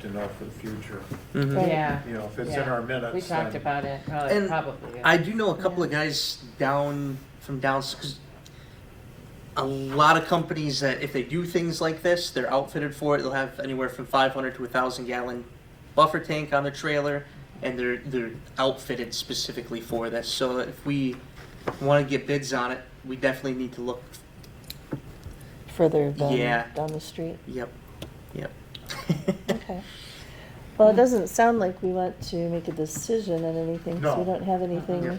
to know for the future. Mm-hmm. Mhm. Yeah. You know, if it's in yeah. our minutes, We talked then- about it, probably, And probably. I do know a couple of guys down from down because a lot of companies that if they do things like this, they're outfitted for it. They'll have anywhere from 500 to 1,000 gallon buffer tank on the trailer, and they're they're outfitted specifically for this. So if we want to get bids on it, we definitely need to look. further down, Yeah. down the street. Yep, yep. Okay. Well, it doesn't sound like we want to make a decision on anything, so No. we don't have Yep. anything.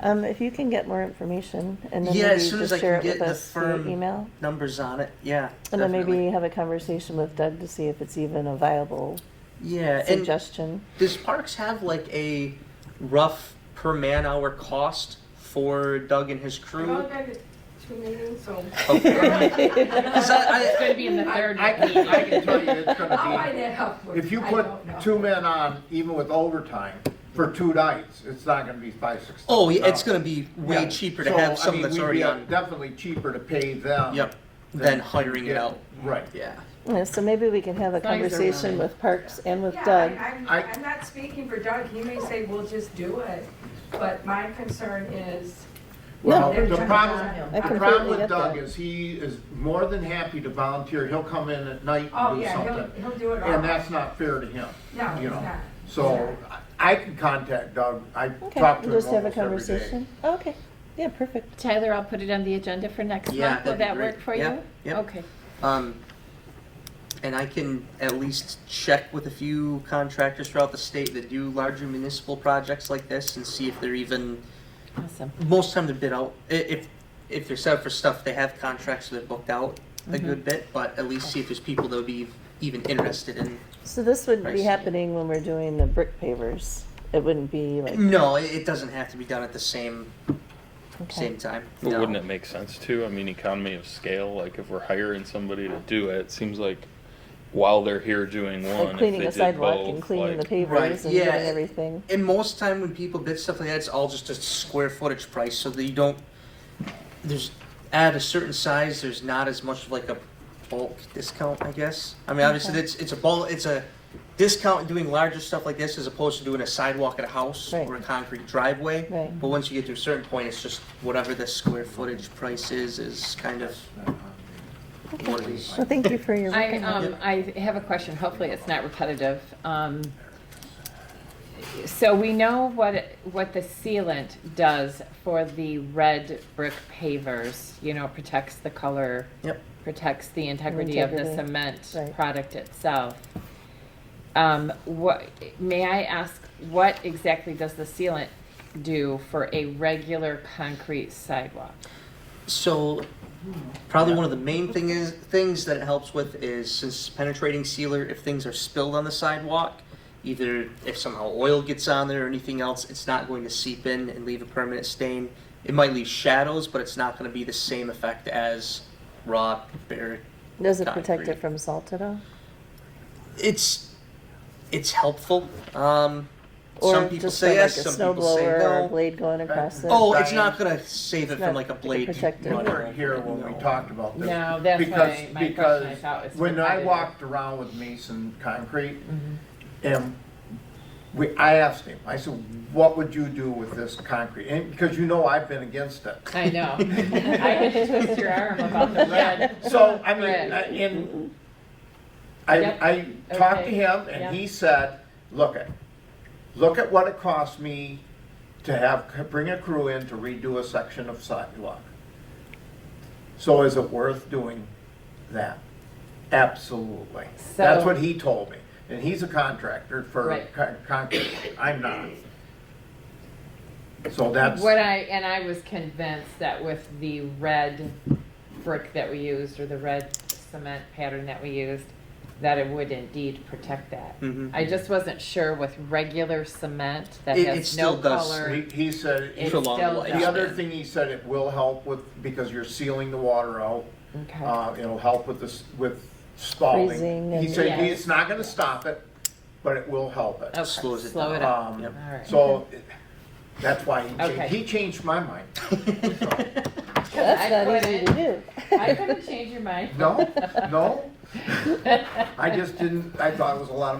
Um, if you can get more information and then yeah, maybe as soon as I just share can it get with the us through firm email. numbers on it, yeah. And then maybe definitely. have a conversation with Doug to see if it's even a viable yeah, Uh, and suggestion. Does Parks have like a rough per man hour cost for Doug and his I've crew? only been to two meetings, so. Is that- I- It's gonna be in the third I meeting. can, I can tell you, it's I'll gonna find that out for be, you. if you Oh, I put don't know. two men on, even with overtime, for two nights, it's not gonna be five, six. Oh, yeah, thousand it's going to be way dollars. Yeah. cheaper to So, I have someone mean, that's we'd already be, uh, on. Definitely cheaper to pay them. Yep. than- Than hiring it yeah, out. Right. Yeah. Yeah, so maybe we can have a As long as they're conversation willing. with Parks and with Yeah, Doug. I- I'm, I- I'm not speaking for Doug, he may say, we'll just do it, but my concern is. Well, they're the trying to find problem, him. I the problem completely with get Doug that. is he is more than happy to volunteer, he'll come in at night Oh, and do yeah, he'll, something. he'll do it all. And that's not fair to him. No, it's you know. not. So I I can contact Doug, I talk Okay, to him almost we'll just have a every day. conversation. Oh, Okay, yeah, perfect. Tyler, I'll put it on the agenda for next Yeah, month. Will that'd be that great. work for you? Yeah, yeah. Okay. Um, and I can at least check with a few contractors throughout the state that do larger municipal projects like this and see if they're even Awesome. most time they bid out. I- If if they're set up for stuff, they have contracts that are booked out a good bit, but at least see if there's people that would be even interested in So this would be Pricing. happening when we're doing the brick pavers. It wouldn't be like. No, it, it doesn't have to be done at the same Okay. same time. But no. wouldn't it make sense to? I mean, economy of scale. Like if we're hiring somebody to do it, it seems like while they're here doing one, Like cleaning a if they did sidewalk both, and cleaning the like, Right, pavers and doing yeah, it- everything. And most time when people bid stuff like that, it's all just a square footage price, so that you don't. There's at a certain size, there's not as much of like a bulk discount, I guess. I mean, obviously, Okay. it's it's a bulk, it's a discount in doing larger stuff like this as opposed to doing a sidewalk at a house Right. or a concrete driveway. Right. Mm-hmm. But once you get to a certain point, it's just whatever the square footage price is is kind of what it is. Well, thank you for your work. I, on that. um, I have a question. Hopefully it's not repetitive. Um, so we know what, what the sealant does for the red brick pavers, you know, protects the color. Yep. Protects the integrity of the Integrity. cement Right. product itself. Um, what, may I ask, what exactly does the sealant do for a regular concrete sidewalk? So, probably one of the main thing is things that it helps with is since penetrating sealer, if things are spilled on the sidewalk, either if somehow oil gets on there or anything else, it's not going to seep in and leave a permanent stain. It might leave shadows, but it's not going to be the same effect as raw bare. Does it protect concrete. it from salt at all? It's it's helpful. Um, some Or people just say by like a yes, some snow people say blower or a no. blade going across it? Oh, it's not going to save it from not like a like a blade. protective. You running weren't here over it, when we no. talked about this. No, that's because- why my question, because I thought it was Mm-hmm. When I repetitive. walked around with Mason Concrete, and we, I asked him, I said, what would you do with this concrete? And, because you know I've been against it. I know. I had to twist your arm about the red. So, I mean, Red. I- and I, I Yep. talked to Okay. him and he said, look at, look at what it cost me to have, bring a crew in to redo a section of sidewalk. So is it worth doing that? Absolutely. That's So- what he told me. And he's a contractor for Right. con- concrete. I'm not. So that's, What I, and I was convinced that with the red brick that we used, or the red cement pattern that we used, that it would indeed protect that. Mhm. I just wasn't sure with regular cement that It- it has still no does. he, color. he said. It For long still life. does. The other thing he said, it will help with, because you're sealing the water out, Okay, uh, it'll help with this, with spalling. Freezing He and- said, Yeah. he- it's not gonna stop it, but it will help it. Okay, slows it slow it up. Um, Yep. All right. So, it- that's why he Okay. changed, he changed my mind. That's I not easy to couldn't- do. I couldn't change your mind. No, no, I just didn't, I thought it was a lot of